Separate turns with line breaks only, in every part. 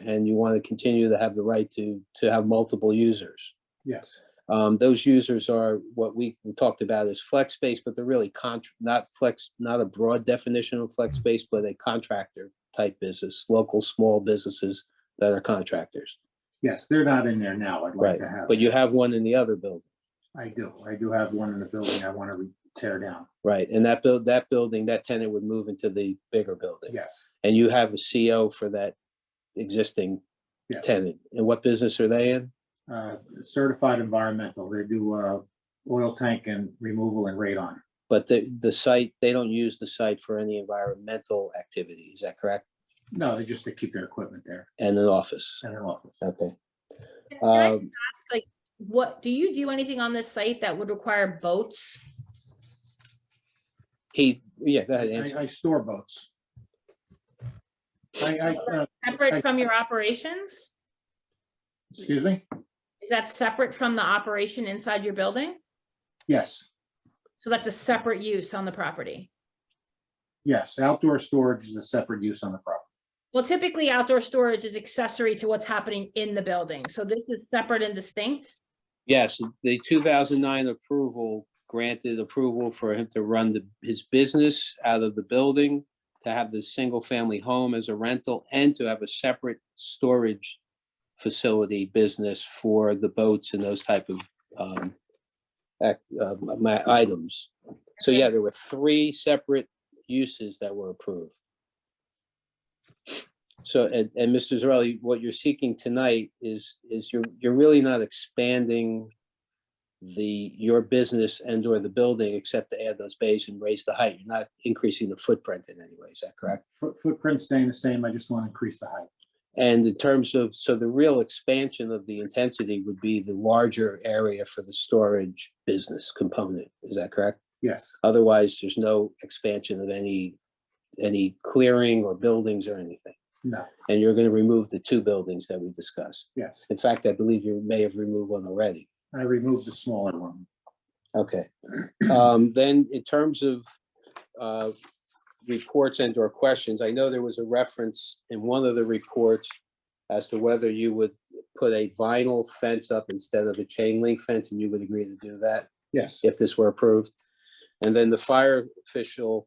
and you want to continue to have the right to, to have multiple users.
Yes.
Um, those users are what we talked about as flex space, but they're really contr not flex, not a broad definition of flex space, but a contractor type business, local small businesses that are contractors.
Yes, they're not in there now. I'd like
Right,
to have.
but you have one in the other building,
I do. I do have one in the building I want to tear down.
right? And that build, that building, that tenant would move into the bigger building.
Yes.
And you have a CO for that existing
Yes.
tenant. And what business are they in?
Uh, Certified environmental. They do uh, oil tank and removal and radon.
But the, the site, they don't use the site for any environmental activity, is that correct?
No, they just, they keep their equipment there
And an office,
in an office.
okay.
Can can I
Um,
ask, like, what, do you do anything on this site that would require boats?
He, yeah, go ahead,
I
answer.
I store boats. I, I, uh, I-
Separate from your operations?
excuse me?
Is that separate from the operation inside your building?
Yes,
So that's a separate use on the property?
yes. Outdoor storage is a separate use on the property.
Well, typically outdoor storage is accessory to what's happening in the building. So this is separate and distinct.
Yes, the two thousand nine approval granted approval for him to run the, his business out of the building, to have the single-family home as a rental, and to have a separate storage facility business for the boats and those type of, um, act, uh, my items. So yeah, there were three separate uses that were approved. So, and, and Mr. Zarelli, what you're seeking tonight is, is you're, you're really not expanding the, your business and or the building, except to add those bays and raise the height. You're not increasing the footprint in any way, is that correct?
Foot- Footprint staying the same. I just want to increase the height.
And in terms of, so the real expansion of the intensity would be the larger area for the storage business component, is that correct?
Yes,
Otherwise, there's no expansion of any, any clearing or buildings or anything.
no,
And you're going to remove the two buildings that we discussed.
yes.
In fact, I believe you may have removed one already.
I removed the smaller one.
Okay. Um, Then in terms of uh, reports and or questions, I know there was a reference in one of the reports as to whether you would put a vinyl fence up instead of a chain link fence, and you would agree to do that
Yes,
if this were approved. And then the fire official,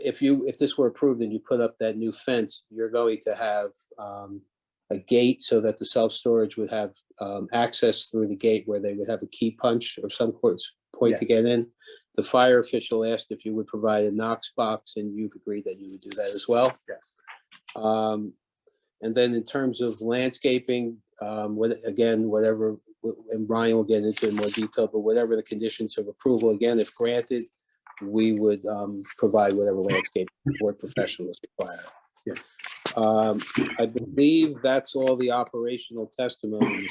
if you, if this were approved and you put up that new fence, you're going to have um, a gate so that the self-storage would have um, access through the gate where they would have a key punch or some point, point to
Yes.
get in. The fire official asked if you would provide a Knox box and you've agreed that you would do that as well.
yes,
Um, and then in terms of landscaping, um, what, again, whatever, w- and Brian will get into it in more detail, but whatever the conditions of approval, again, if granted, we would, um, provide whatever landscape board professionals require.
yes.
Um, I believe that's all the operational testimony.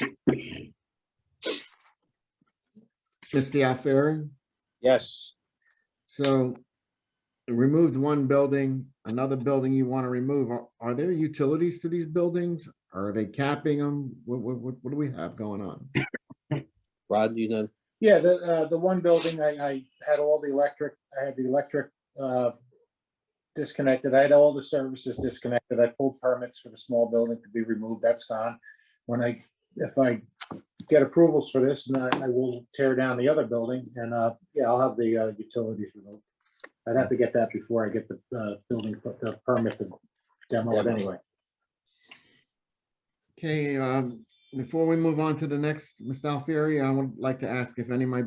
Mr. Alfieri,
Yes,
so removed one building, another building you want to remove. Are- Are there utilities to these buildings? Are they capping them? What, what, what what do we have going on?
Rod, you know,
Yeah, the, uh, the one building, I, I had all the electric, I had the electric, uh, disconnected. I had all the services disconnected. I pulled permits for the small building to be removed. That's gone. When I, if I get approvals for this, then I, I will tear down the other building and, uh, yeah, I'll have the, uh, utilities removed. I'd have to get that before I get the, uh, building, the permit to demo it anyway.
Okay, um, before we move on to the next, Mr. Alfieri, I would like to ask if any of my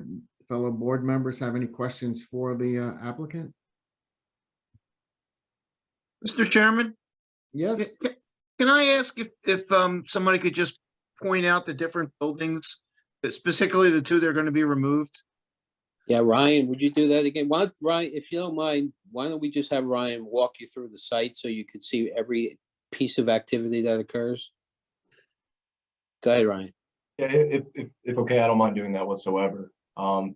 fellow board members have any questions for the uh, applicant?
Mr. Chairman,
Yes,
ca- can I ask if, if um, somebody could just point out the different buildings, specifically the two that are going to be removed?
yeah, Ryan, would you do that again? Why, don't- Ryan, if you don't mind, why don't we just have Ryan walk you through the site so you could see every piece of activity that occurs? Go ahead, Ryan.
Yeah, i- if, if, if okay, I don't mind doing that whatsoever. Um,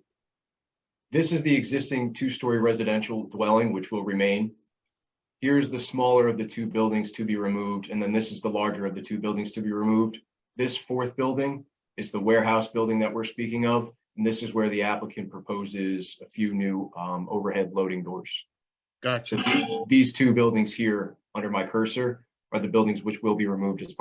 This is the existing two-story residential dwelling, which will remain. Here's the smaller of the two buildings to be removed, and then this is the larger of the two buildings to be removed. This fourth building is the warehouse building that we're speaking of, and this is where the applicant proposes a few new um, overhead loading doors.
Gotcha.
So these two buildings here, under my cursor, are the buildings which will be removed as part